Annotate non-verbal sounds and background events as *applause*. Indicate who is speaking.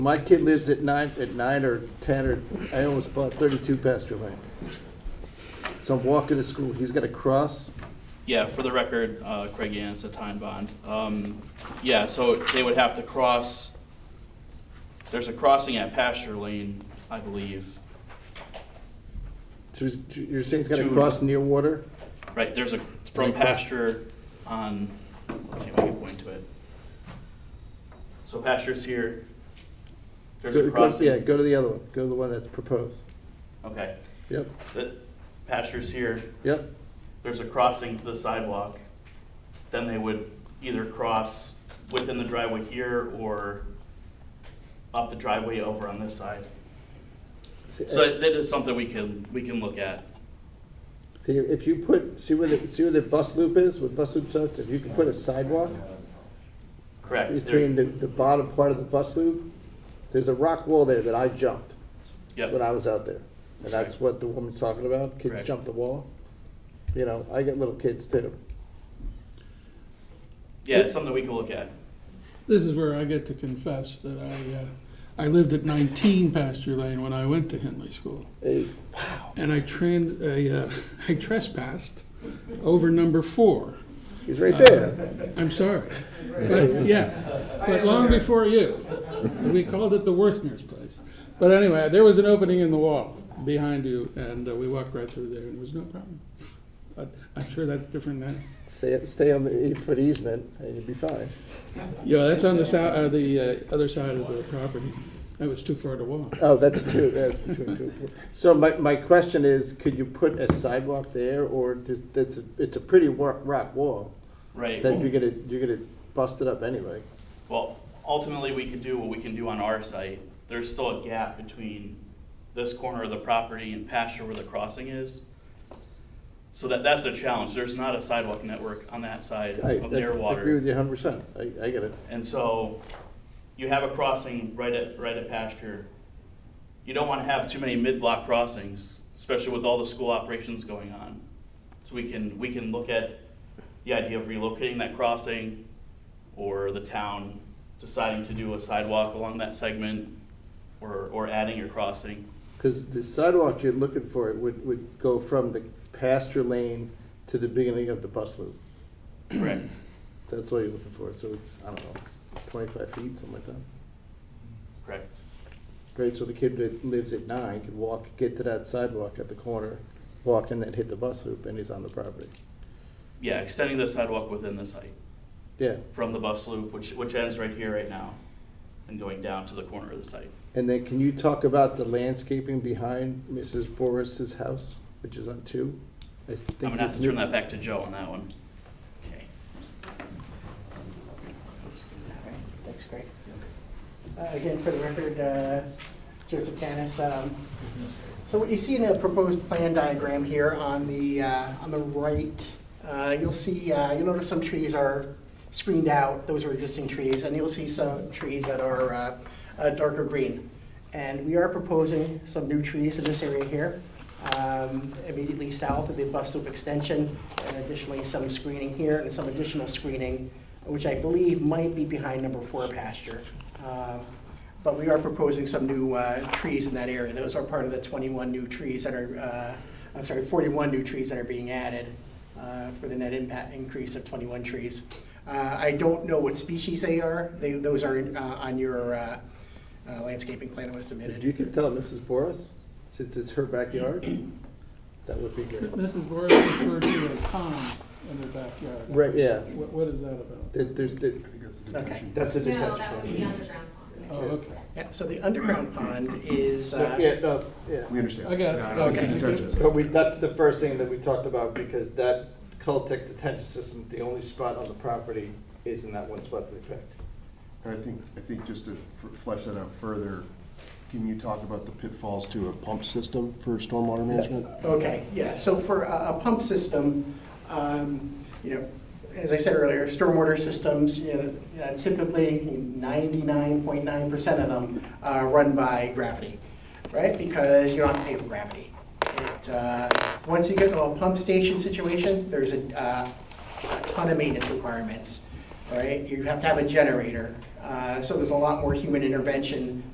Speaker 1: My kid lives at nine, at nine or ten or, I almost bought thirty-two pasture lane. So I'm walking to school, he's gotta cross,
Speaker 2: Yeah, for the record, uh, Craig Yance, a time bond. Um, Yeah, so they would have to cross, there's a crossing at pasture lane, I believe.
Speaker 1: so he's- you're saying he's gotta
Speaker 2: Two.
Speaker 1: cross near water?
Speaker 2: Right, there's a, from pasture on, let's see if I can point to it. So pasture's here. There's
Speaker 1: Go-
Speaker 2: a
Speaker 1: go-
Speaker 2: crossing.
Speaker 1: Yeah, go to the other one, go to the one that's proposed.
Speaker 2: Okay,
Speaker 1: Yep,
Speaker 2: the pasture's here,
Speaker 1: yep,
Speaker 2: there's a crossing to the sidewalk. Then they would either cross within the driveway here or up the driveway over on this side.
Speaker 1: See, uh,
Speaker 2: So that is something we can, we can look at.
Speaker 1: See, if you put, see where the, see where the bus loop is, with bus loop starts, if you can put a sidewalk
Speaker 2: Correct. There-
Speaker 1: between the, the bottom part of the bus loop, there's a rock wall there that I jumped when
Speaker 2: Yep,
Speaker 1: I was out there. And that's what the woman's talking about, kids
Speaker 2: Correct.
Speaker 1: jump the wall. You know, I get little kids too.
Speaker 2: yeah, it's something we can look at.
Speaker 3: This is where I get to confess that I, uh, I lived at 19 Pasture Lane when I went to Henley School.
Speaker 1: Hey,
Speaker 3: And I trans, I, uh, *laughs* I trespassed over number four. Uh,
Speaker 1: He's
Speaker 2: Uh,
Speaker 1: right there.
Speaker 3: I'm sorry. But, yeah, but long before you. We called it the Worthner's place. But anyway, there was an opening in the wall behind you, and uh, we walked right through there, and it was no problem. But I'm sure that's different now.
Speaker 1: Stay, stay on the eight foot easement and you'll be fine.
Speaker 3: Yeah, that's on the south, uh, the uh, other side of the property. That was too far to walk.
Speaker 1: Oh, that's two, that's between two and four. So my, my question is, could you put a sidewalk there or just, it's, a- it's a pretty wa- rock wall?
Speaker 2: Right.
Speaker 1: That you're gonna, you're gonna bust it up anyway.
Speaker 2: Well, ultimately, we could do what we can do on our site. There's still a gap between this corner of the property and pasture where the crossing is. So that, that's the challenge. There's not a sidewalk network on that side
Speaker 1: I, I
Speaker 2: of their
Speaker 1: agree
Speaker 2: water.
Speaker 1: with you hundred percent. I, I get it.
Speaker 2: And so you have a crossing right at, right at pasture. You don't want to have too many mid-block crossings, especially with all the school operations going on. So we can, we can look at the idea of relocating that crossing or the town deciding to do a sidewalk along that segment or, or adding a crossing.
Speaker 1: Because the sidewalk you're looking for would, would go from the pasture lane to the beginning of the bus loop.
Speaker 2: Correct.
Speaker 1: That's all you're looking for. So it's, I don't know, twenty-five feet, something like that.
Speaker 2: Correct.
Speaker 1: Great, so the kid that lives at nine could walk, get to that sidewalk at the corner, walk and then hit the bus loop and he's on the property.
Speaker 2: Yeah, extending the sidewalk within the site
Speaker 1: Yeah,
Speaker 2: from the bus loop, which, which ends right here right now and going down to the corner of the site.
Speaker 1: and then can you talk about the landscaping behind Mrs. Boris's house, which is on two? I think
Speaker 2: I'm gonna have
Speaker 1: there's
Speaker 2: to turn
Speaker 1: new-
Speaker 2: that back to Joe on that one. Okay.
Speaker 4: Alright, That's great. Uh, Again, for the record, uh, Joseph Canis. um, So what you see in the proposed plan diagram here on the, uh, on the right, uh, you'll see, uh, you'll notice some trees are screened out, those are existing trees, and you'll see some trees that are uh, uh, darker green. And we are proposing some new trees in this area here, um, immediately south of the bus loop extension, and additionally some screening here and some additional screening, which I believe might be behind number four pasture. Um, But we are proposing some new uh, trees in that area. Those are part of the 21 new trees that are, uh, I'm sorry, 41 new trees that are being added uh, for the net impact increase of 21 trees. Uh, I don't know what species they are. They- Those are in, uh, on your uh, uh, landscaping plan that was
Speaker 1: If you
Speaker 4: submitted.
Speaker 1: could tell Mrs. Boris, since it's her backyard, that would be good.
Speaker 3: Mrs. Boris referred to a pond in her backyard.
Speaker 1: Right, yeah.
Speaker 3: What, what is that about?
Speaker 1: There- There's, there-
Speaker 4: Okay.
Speaker 1: that's a
Speaker 5: No, that was
Speaker 1: detention
Speaker 5: the underground
Speaker 3: Oh,
Speaker 5: pond.
Speaker 3: okay,
Speaker 4: Yeah, So the underground pond is,
Speaker 1: pond.
Speaker 4: uh,
Speaker 1: Yeah, no, yeah.
Speaker 6: We understand.
Speaker 3: I got it.
Speaker 6: No, I don't
Speaker 3: Okay.
Speaker 6: think it's
Speaker 1: But
Speaker 6: intentional.
Speaker 1: we, that's the first thing that we talked about, because that Caltech detention system, the only spot on the property is in that one spot that we picked.
Speaker 6: And I think, I think just to f- flesh that out further, can you talk about the pitfalls to a pump system for stormwater management?
Speaker 4: Okay, yeah, so for a a pump system, um, you know, as I said earlier, stormwater systems, you know, uh, typically 99.9% of them are run by gravity, right? Because you don't have to pay for gravity. It, uh, Once you get to a pump station situation, there's a uh, a ton of maintenance requirements, right? You have to have a generator, uh, so there's a lot more human intervention